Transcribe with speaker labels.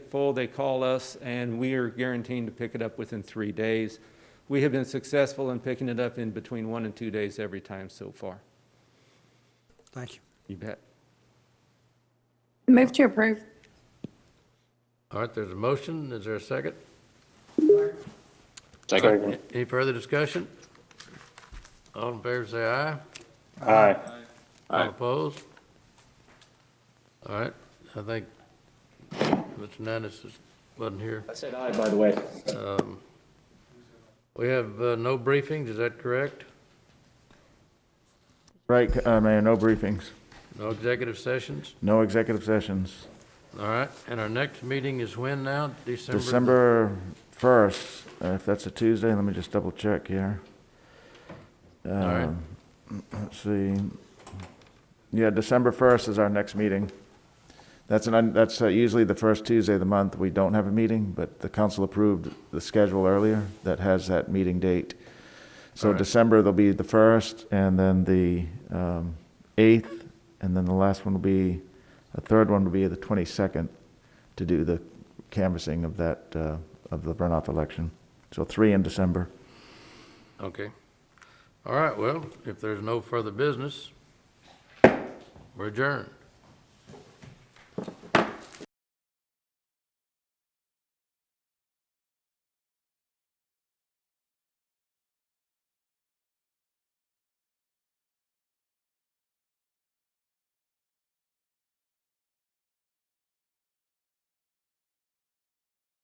Speaker 1: full, they call us, and we are guaranteed to pick it up within three days. We have been successful in picking it up in between one and two days every time so far.
Speaker 2: Thank you.
Speaker 1: You bet.
Speaker 3: Move to approve.
Speaker 4: All right, there's a motion. Is there a second?
Speaker 5: Second.
Speaker 4: Any further discussion? All in favor, say aye.
Speaker 5: Aye.
Speaker 4: All opposed? All right, I think Mr. Nannis is- wasn't here. Um,
Speaker 5: I said aye, by the way.
Speaker 4: We have uh, no briefings, is that correct?
Speaker 6: Right, uh, Mayor, no briefings,
Speaker 4: No executive sessions?
Speaker 6: no executive sessions.
Speaker 4: All right, and our next meeting is when now? December?
Speaker 6: December 1st, uh, if that's a Tuesday, let me just double check here.
Speaker 4: All right,
Speaker 6: Let's see. Yeah, December 1st is our next meeting. That's an, un- that's uh, usually the first Tuesday of the month, we don't have a meeting, but the council approved the schedule earlier that has that meeting date.
Speaker 4: All
Speaker 6: So
Speaker 4: right.
Speaker 6: December, there'll be the 1st, and then the um, 8th, and then the last one will be, the third one will be the 22nd to do the canvassing of that, uh, of the runoff election. So three in December.
Speaker 4: okay. All right, well, if there's no further business, we're adjourned.